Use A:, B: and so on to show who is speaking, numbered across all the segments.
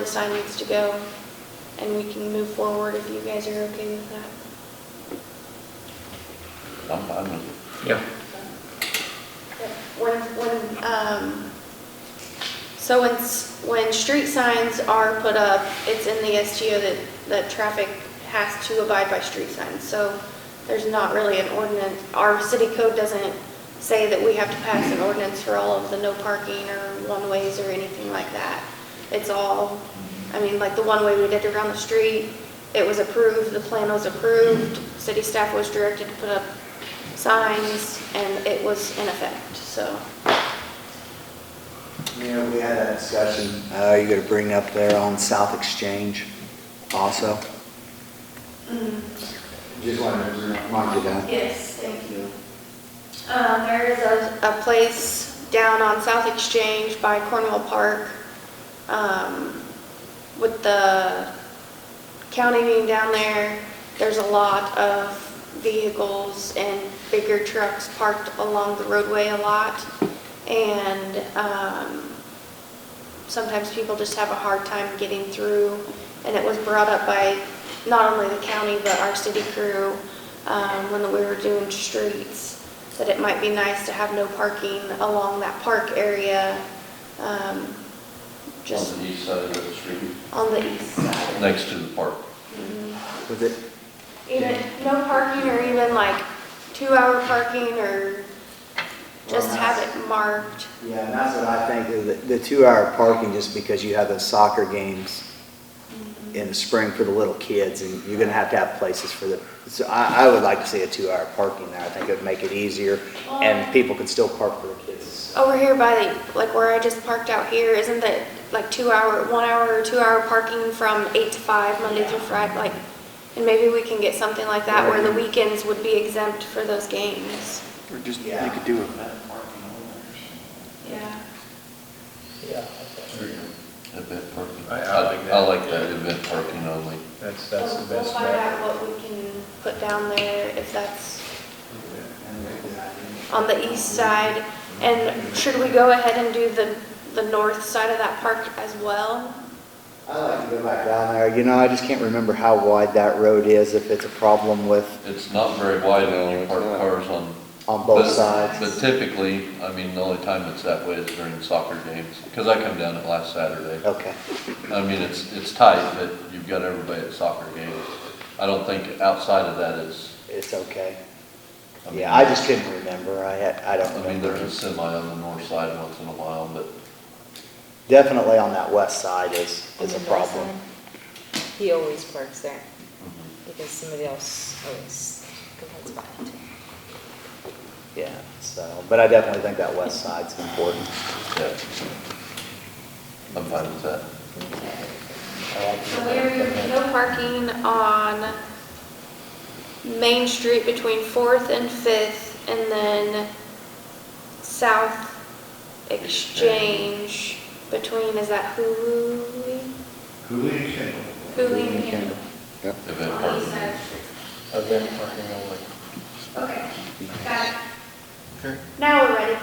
A: The sign needs to go, and we can move forward if you guys are okay with that.
B: I'm fine with
C: Yeah.
A: When, when, um, so when, s- when street signs are put up, it's in the STO that, that traffic has to abide by street signs. So there's not really an ordinance, our city code doesn't say that we have to pass an ordinance for all of the no parking or one-ways or anything like that. It's all, I mean, like the one-way we did around the street, it was approved, the plan was approved, city staff was directed to put up signs, and it was in effect, so.
D: Mayor, we had a discussion, uh, you're gonna bring up there on South Exchange also. Just wanted to remind you that.
A: Yes, thank you. Uh, There is a, a place down on South Exchange by Cornwall Park um, with the county being down there. There's a lot of vehicles and bigger trucks parked along the roadway a lot. And um, sometimes people just have a hard time getting through. And it was brought up by not only the county, but our city crew um, when we were doing streets, that it might be nice to have no parking along that park area, um,
B: it.
A: just
B: On the east side of the street,
A: on the east side.
B: next to the park.
D: Was it,
A: Even, no parking or even like two-hour parking or just have it marked.
D: yeah, and that's what I think, is the, the two-hour parking, just because you have the soccer games in the spring for the little kids, and you're gonna have to have places for the, so I, I would like to see a two-hour parking there, I think it would make it easier, and people could still park for the kids.
A: Over here by the, like where I just parked out here, isn't that like two-hour, one-hour or two-hour parking from eight to five, Monday through Friday? Like, and maybe we can get something like that where the weekends would be exempt for those games.
E: Or just, you
D: Yeah.
E: could do it.
A: Yeah.
C: Yeah.
B: Event parking.
C: I- I like that.
B: I like that, event parking only.
C: That's, that's
A: We'll
C: the
A: we'll
C: best
A: find
C: way.
A: out what we can put down there, if that's on the east side. And should we go ahead and do the, the north side of that park as well?
D: I like to go back down there, you know, I just can't remember how wide that road is, if it's a problem with,
B: It's not very wide, they only park cars on.
D: on both
B: but-
D: sides.
B: But typically, I mean, the only time it's that way is during soccer games, because I come down it last Saturday.
D: Okay,
B: I mean, it's, it's tight, but you've got everybody at soccer games. I don't think outside of that is.
D: it's okay.
B: mean,
D: Yeah, I just couldn't remember, I had, I don't
B: I mean,
D: remember.
B: there's a semi on the north side once in a while, but
D: Definitely on that west side is,
F: On
D: is
F: the
D: a
F: north
D: problem.
F: side, He always parks there
B: mm-hmm,
F: because somebody else always complains about it.
D: Yeah, so, but I definitely think that west side's important.
B: yeah. I'm fine with that.
A: So there, no parking on Main Street between Fourth and Fifth, and then South Exchange between, is that Hulu? Hulu and Oh, Kendall.
B: Event parking.
C: Event parking only.
A: Okay, got it.
G: Okay.
A: Now we're ready.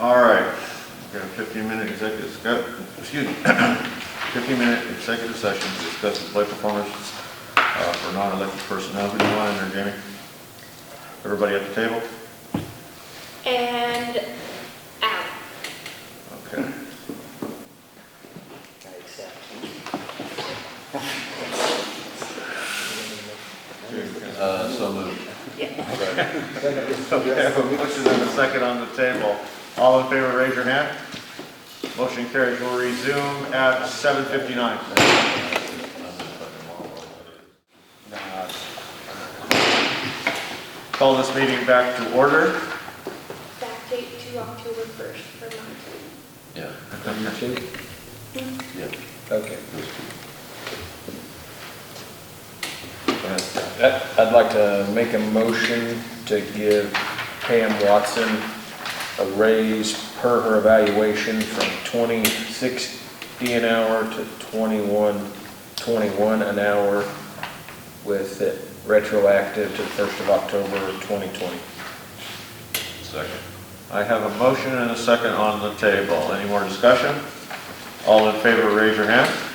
G: All right, got a 15-minute executive, sc- excuse me, 15-minute executive session to discuss the play performance uh, for non-elected personnel. Who do you want in there, Jamie? Everybody at the table?
A: And out.
G: Okay.
B: Uh, so moved.
G: Okay, I have a motion and a second on the table. All in favor, raise your hand. Motion carries. We'll resume at 7:59. Call this meeting back to order.
A: Backdate to October 1st for Monty.
B: Yeah,
C: You too?
B: yeah.
C: Okay.
B: those two.
C: I- I'd like to make a motion to give Pam Watson a raise per her evaluation from 2060 an hour to 2121 an hour with it retroactive to the 1st of October 2020.
B: Second.
G: I have a motion and a second on the table. Any more discussion? All in favor, raise your hand.